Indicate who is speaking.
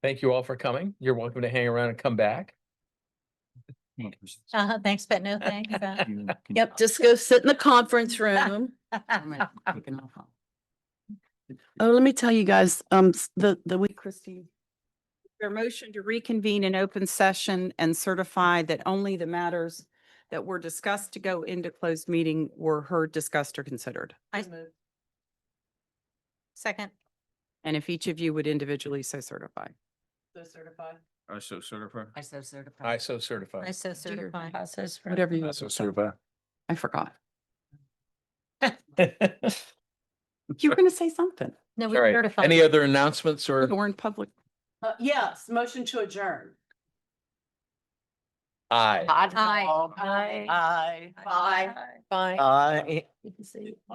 Speaker 1: Thank you all for coming. You're welcome to hang around and come back.
Speaker 2: Uh-huh, thanks, but no thank you. Beth.
Speaker 3: Yep, just go sit in the conference room. Oh, let me tell you guys, um, s- the, the week Christine.
Speaker 4: Your motion to reconvene in open session and certify that only the matters that were discussed to go into closed meeting were heard, discussed, or considered.
Speaker 2: I- Second,
Speaker 4: And if each of you would individually so certify.
Speaker 5: I so certify.
Speaker 6: I so certify.
Speaker 1: I so certify.
Speaker 2: I so certify.
Speaker 6: Process for-
Speaker 4: Whatever you,
Speaker 5: certify.
Speaker 4: I forgot.
Speaker 1: All
Speaker 4: You were going to say something.
Speaker 2: No, we
Speaker 1: right.
Speaker 2: certify.
Speaker 1: Any other announcements or
Speaker 4: We're in public.
Speaker 3: Uh, yes, motion to adjourn.
Speaker 1: aye?
Speaker 6: Oddball.
Speaker 2: Aye.
Speaker 6: Aye.
Speaker 3: Aye. Bye.
Speaker 6: Aye.
Speaker 2: Bye.
Speaker 6: You can see.